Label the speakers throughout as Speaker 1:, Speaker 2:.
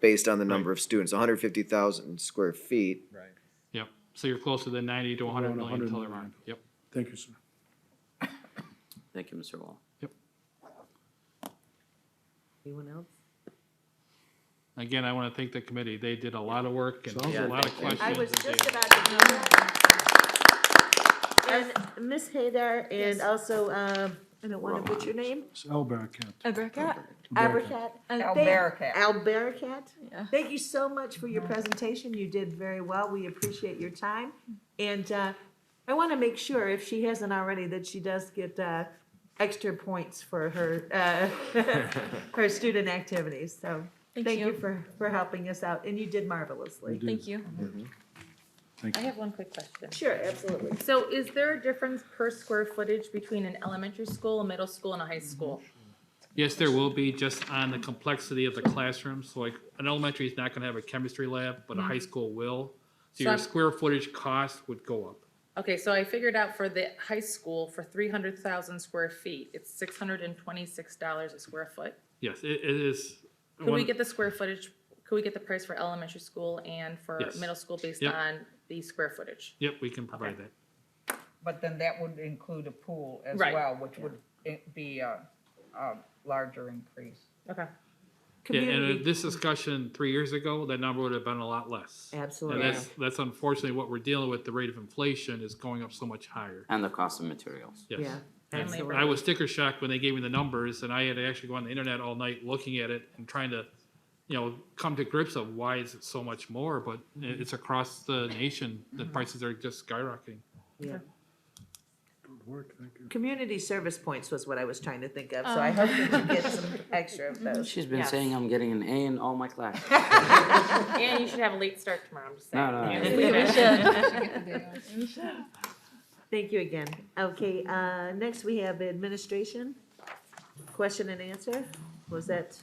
Speaker 1: based on the number of students, hundred fifty thousand square feet.
Speaker 2: Right.
Speaker 3: Yep, so you're closer than ninety to
Speaker 2: around
Speaker 3: hundred million
Speaker 2: 100
Speaker 3: dollar mark,
Speaker 2: million.
Speaker 3: yep.
Speaker 2: Thank you, sir.
Speaker 4: Thank you, Mr. Wall.
Speaker 5: Anyone else?
Speaker 3: Again, I wanna thank the committee, they did a lot of work and
Speaker 2: Sounds
Speaker 3: a
Speaker 4: like
Speaker 3: lot of
Speaker 4: it. I
Speaker 3: questions.
Speaker 6: I was
Speaker 3: and
Speaker 6: just
Speaker 3: data.
Speaker 6: about to do that.
Speaker 5: And Ms. Haydar and
Speaker 6: Yes.
Speaker 5: also, um, I don't want to butcher your name,
Speaker 2: It's Elbarakat.
Speaker 6: Alberca?
Speaker 5: Abercat.
Speaker 6: Alberca.
Speaker 5: Albericat.
Speaker 6: Yeah.
Speaker 5: Thank you so much for your presentation. You did very well. We appreciate your time. And uh, I want to make sure, if she hasn't already, that she does get uh, extra points for her, uh, her student activities. So
Speaker 6: Thank
Speaker 5: thank you
Speaker 6: you.
Speaker 5: for, for helping us out, and you did marvelously.
Speaker 6: Thank you.
Speaker 2: Mm-hmm. Thank
Speaker 7: I
Speaker 2: you.
Speaker 7: have one quick question.
Speaker 5: Sure, absolutely.
Speaker 7: So is there a difference per square footage between an elementary school, a middle school, and a high school?
Speaker 3: Yes, there will be, just on the complexity of the classroom, so like, an elementary is not gonna have a chemistry lab, but a high school will. So
Speaker 7: So
Speaker 3: your
Speaker 7: I'm-
Speaker 3: square footage cost would go up.
Speaker 7: Okay, so I figured out for the high school, for three hundred thousand square feet, it's six hundred and twenty-six dollars a square foot.
Speaker 3: Yes, it, it is.
Speaker 7: Could we
Speaker 3: one-
Speaker 7: get the square footage, could we get the price for elementary school and for
Speaker 3: Yes.
Speaker 7: middle school based
Speaker 3: Yep.
Speaker 7: on the square footage?
Speaker 3: Yep, we can provide that.
Speaker 8: But then that would include a pool as
Speaker 7: Right.
Speaker 8: well, which would i- be a, a larger increase.
Speaker 7: Okay.
Speaker 3: Yeah, and uh,
Speaker 5: Community-
Speaker 3: this discussion three years ago, that number would have been a lot less. And
Speaker 5: Absolutely.
Speaker 3: that's, that's unfortunately what we're dealing with, the rate of inflation is going up so much higher,
Speaker 4: And the cost of materials.
Speaker 3: yes.
Speaker 5: Yeah,
Speaker 7: And labor.
Speaker 5: absolutely.
Speaker 3: I was sticker shocked when they gave me the numbers and I had to actually go on the internet all night looking at it and trying to, you know, come to grips of why is it so much more, but it- it's across the nation, the prices are just skyrocketing.
Speaker 5: Yeah.
Speaker 2: Good work, thank you.
Speaker 5: Community service points was what I was trying to think of, so I hope that you get some extra of those.
Speaker 4: She's been
Speaker 7: Yes.
Speaker 4: saying I'm getting an A in all my classes.
Speaker 7: And you should have a late start tomorrow, I'm just saying.
Speaker 4: No, no,
Speaker 7: Yeah,
Speaker 4: no.
Speaker 7: we should.
Speaker 5: Thank you again. Okay, uh, next we have administration, question and answer. Was that,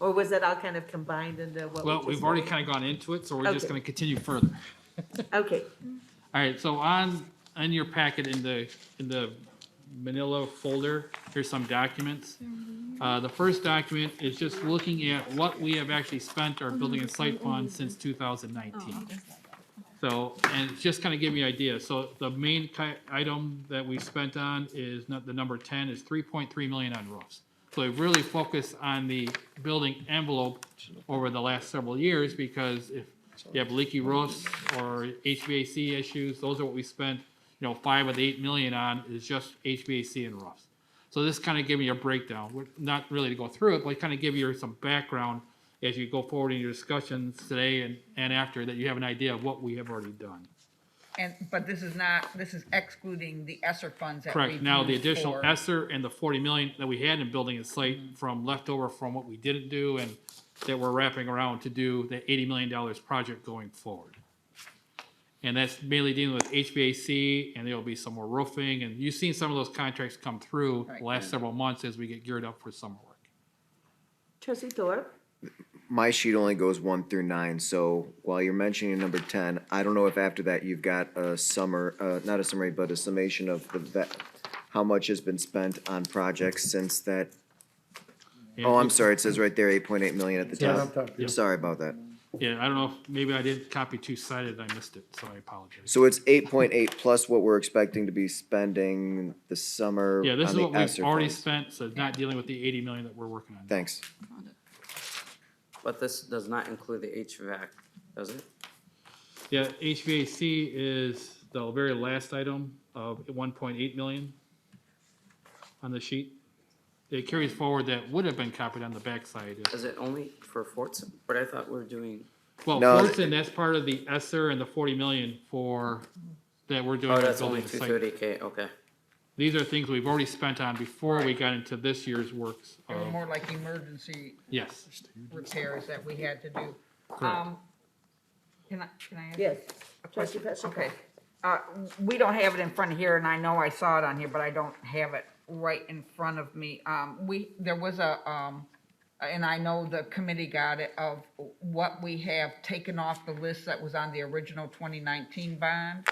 Speaker 5: or was that all kind of combined into what? we
Speaker 3: Well,
Speaker 5: just
Speaker 3: we've already
Speaker 5: did?
Speaker 3: kind of gone into it, so we're just
Speaker 5: Okay.
Speaker 3: gonna continue further.
Speaker 5: Okay,
Speaker 3: All right, so on, on your packet in the, in the manila folder, here's some documents. Uh, the first document is just looking at what we have actually spent our building and site fund since two thousand nineteen. So, and it's just kind of give you an idea, so the main ki- item that we spent on is, not the number ten, is three point three million on roofs. So we've really focused on the building envelope over the last several years, because if you have leaky roofs or HVAC issues, those are what we spent, you know, five of the eight million on is just HVAC and roofs. So this kind of giving you a breakdown, We're not really to go through it, but kind of give you some background as you go forward in your discussions today and, and after, that you have an idea of what we have already done.
Speaker 8: And, but this is not, this is excluding the ESSER funds that we've
Speaker 3: Correct, now the
Speaker 8: used
Speaker 3: additional
Speaker 8: for- Mm-hmm.
Speaker 3: ESSER and the forty million that we had in building and slate from leftover from what we didn't do and that we're wrapping around to do the eighty million dollars project going forward. And that's mainly dealing with HVAC and there'll be some more roofing and you've seen some of those contracts come through the
Speaker 8: Right.
Speaker 3: last several months as we get geared up for summer work.
Speaker 5: trustee Thorpe,
Speaker 1: My sheet only goes one through nine, so while you're mentioning number ten, I don't know if after that you've got a summer, uh, not a summary, but a summation of the vet, how much has been spent on projects since that, oh, I'm sorry, it says right there, eight point eight million at the
Speaker 2: Yeah,
Speaker 1: top.
Speaker 2: up top, yeah.
Speaker 1: Sorry about that.
Speaker 3: Yeah, I don't know, if maybe I did copy two-sided, I missed it, so I apologize.
Speaker 1: So it's eight point eight plus what we're expecting to be spending this summer
Speaker 3: Yeah,
Speaker 1: on
Speaker 3: this is
Speaker 1: the
Speaker 3: what we've
Speaker 1: ESSER
Speaker 3: already
Speaker 1: funds.
Speaker 3: spent, so it's not dealing with the eighty million that we're working on.
Speaker 1: Thanks.
Speaker 4: But this does not include the HVAC, does it?
Speaker 3: Yeah, HVAC is the very last item of one point eight million on the sheet. It carries forward that would have been copied on the backside. if-
Speaker 4: Is it only for Forts? But I thought we were doing,
Speaker 3: Well,
Speaker 1: No,
Speaker 3: Fortson, that's part of the ESSER and the forty million for, that we're doing.
Speaker 4: oh,
Speaker 3: with
Speaker 4: that's only
Speaker 3: building
Speaker 4: two
Speaker 3: site.
Speaker 4: thirty K, okay.
Speaker 3: These are things we've already spent on before we got into this year's works
Speaker 8: They were
Speaker 3: of,
Speaker 8: more like emergency
Speaker 3: yes.
Speaker 8: repairs that we had to do. Um, Can I, can I ask?
Speaker 5: yes,
Speaker 8: a
Speaker 5: trustee
Speaker 8: question?
Speaker 5: Petrichor.
Speaker 8: Okay. Uh, we don't have it in front of here, and I know I saw it on here, but I don't have it right in front of me. Um, we, there was a, um, and I know the committee got it, of what we have taken off the list that was on the original twenty nineteen bond.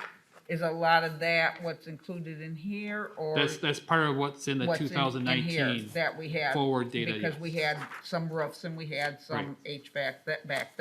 Speaker 8: Is a lot of that what's included in here or?
Speaker 3: That's, that's part of what's in the
Speaker 8: what's in-
Speaker 3: two
Speaker 8: in
Speaker 3: thousand
Speaker 8: here
Speaker 3: nineteen.
Speaker 8: That we had.
Speaker 3: forward data,
Speaker 8: Because
Speaker 3: yes.
Speaker 8: we had some roofs and we had some HVAC that back